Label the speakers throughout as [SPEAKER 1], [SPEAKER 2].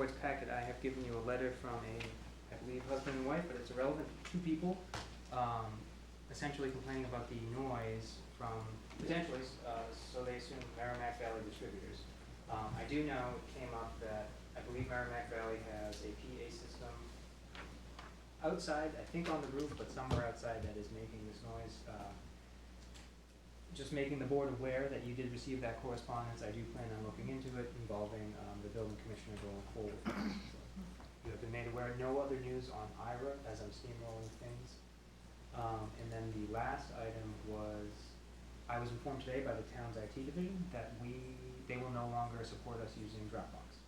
[SPEAKER 1] board's packet, I have given you a letter from a, I believe, husband and wife, but it's irrelevant, two people, um, essentially complaining about the noise from, potentially, uh, so they assume Merrimack Valley distributors. Um, I do know it came up that, I believe Merrimack Valley has a PA system outside, I think on the roof, but somewhere outside that is making this noise, uh, just making the board aware that you did receive that correspondence, I do plan on looking into it involving, um, the building commissioner going forward. So, You have been made aware, no other news on IRA as I'm steamrolling things. Um, and then the last item was, I was informed today by the town's IT division that we, they will no longer support us using Dropbox.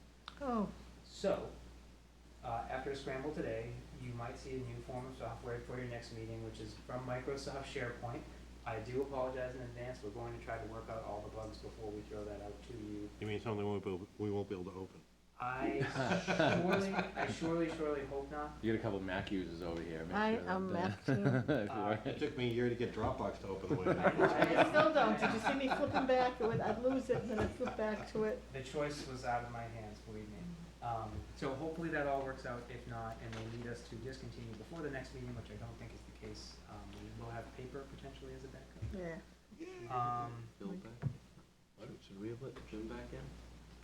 [SPEAKER 2] Oh,
[SPEAKER 1] So, uh, after a scramble today, you might see a new form of software for your next meeting, which is from Microsoft SharePoint. I do apologize in advance, we're going to try to work out all the bugs before we throw that out to you.
[SPEAKER 3] You mean something we won't be, able- we won't be able to open?
[SPEAKER 1] I surely, I surely, surely hope not.
[SPEAKER 4] You got a couple Mac users over here. Make
[SPEAKER 2] I
[SPEAKER 4] sure
[SPEAKER 2] am
[SPEAKER 4] that, uh,
[SPEAKER 2] Mac too.
[SPEAKER 4] everywhere.
[SPEAKER 3] It took me a year to get Dropbox to open the way.
[SPEAKER 1] I-
[SPEAKER 3] it is.
[SPEAKER 2] I still don't, did you see me flipping back, It would- I'd lose it, and then I'd flip back to it.
[SPEAKER 1] The choice was out of my hands, believe me. Um, so hopefully that all works out, if not, and they need us to discontinue before the next meeting, which I don't think is the case. Um, we will have paper potentially as a backup.
[SPEAKER 2] Yeah,
[SPEAKER 1] Um,
[SPEAKER 5] Bill back? What, Should we have let Jim back in?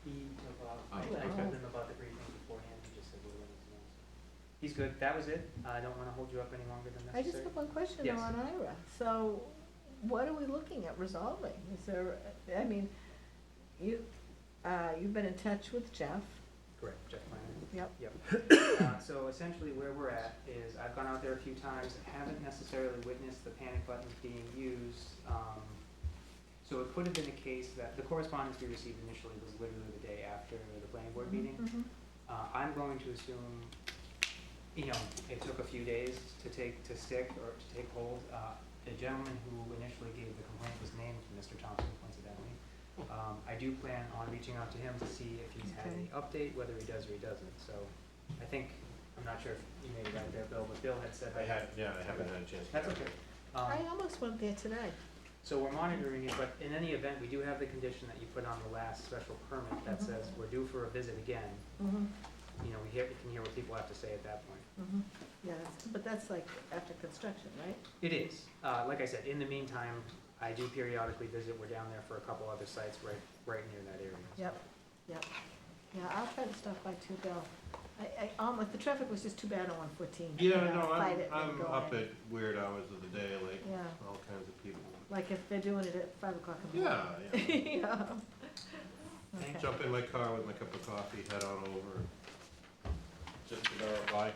[SPEAKER 1] He took off.
[SPEAKER 5] Oh,
[SPEAKER 1] uh, I I
[SPEAKER 2] okay.
[SPEAKER 1] told him about the briefing beforehand, he just said we're running some else. He's good, that was it, I don't wanna hold you up any longer than
[SPEAKER 2] I
[SPEAKER 1] necessary.
[SPEAKER 2] just have one question though
[SPEAKER 1] Yes.
[SPEAKER 2] on IRA, so what are we looking at resolving? Is there, I mean, you, uh, you've been in touch with Jeff,
[SPEAKER 1] Correct, Jeff Miner.
[SPEAKER 2] yep,
[SPEAKER 1] Uh, so essentially where we're at is I've gone out there a few times, haven't necessarily witnessed the panic buttons being used. Um, so it could have been a case that the correspondence we received initially was literally the day after the planning board meeting.
[SPEAKER 2] mhm,
[SPEAKER 1] Uh, I'm going to assume, you know, it took a few days to take, to stick or to take hold. Uh, the gentleman who initially gave the complaint was named Mr. Thompson coincidentally. Um, I do plan on reaching out to him to see if he's had any update, whether he does or he doesn't, so I think, I'm not sure if you made it out there, Bill, but Bill had said
[SPEAKER 3] I
[SPEAKER 1] that.
[SPEAKER 3] had, yeah, I haven't had a chance. to
[SPEAKER 1] That's
[SPEAKER 3] get
[SPEAKER 1] okay.
[SPEAKER 3] it.
[SPEAKER 1] Um,
[SPEAKER 2] I almost went there today,
[SPEAKER 1] so we're monitoring it, but in any event, we do have the condition that you put on the last special permit that
[SPEAKER 2] Mhm.
[SPEAKER 1] says we're due for a visit again.
[SPEAKER 2] mm-hmm,
[SPEAKER 1] You know, we hear, we can hear what people have to say at that point.
[SPEAKER 2] mm-hmm, yeah, that's- but that's like after construction, right?
[SPEAKER 1] It is. Uh, like I said, in the meantime, I do periodically visit. We're down there for a couple other sites right, right near that area.
[SPEAKER 2] Yep, yep. Yeah, I'll try to stop by too, Bill. I, I, almost, the traffic was just too bad on one fourteen.
[SPEAKER 3] Yeah, no, I'm, I'm up at weird hours of the day, like,
[SPEAKER 2] Yeah,
[SPEAKER 3] all kinds of people.
[SPEAKER 2] like if they're doing it at five o'clock in the morning.
[SPEAKER 3] Yeah, yeah.
[SPEAKER 2] Yeah. Okay.
[SPEAKER 3] Jump in my car with my cup of coffee, head on over, just to verify.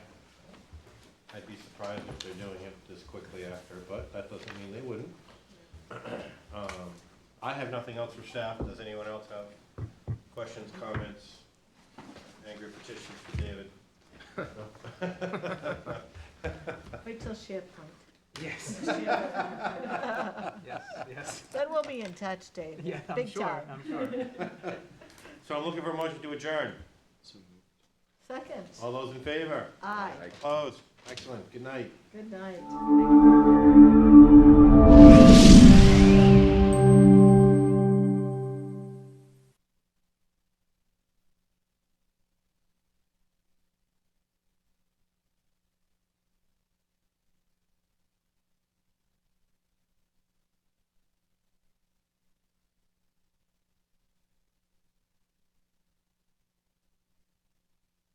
[SPEAKER 3] I'd be surprised if they're doing it this quickly after, but that doesn't mean they wouldn't. Um, I have nothing else for staff. Does anyone else have questions, comments, angry petitions for David?
[SPEAKER 2] Wait till SharePoint.
[SPEAKER 1] Yes, yes, yes.
[SPEAKER 2] Then we'll be in touch, Dave.
[SPEAKER 1] Yeah, I'm
[SPEAKER 2] Big
[SPEAKER 1] sure,
[SPEAKER 2] time.
[SPEAKER 1] I'm sure.
[SPEAKER 3] So I'm looking for a motion to adjourn.
[SPEAKER 2] Second,
[SPEAKER 1] Oh.
[SPEAKER 3] All those in favor?
[SPEAKER 2] aye,
[SPEAKER 4] Like-
[SPEAKER 3] Opposed? Excellent. Good night.
[SPEAKER 2] good night.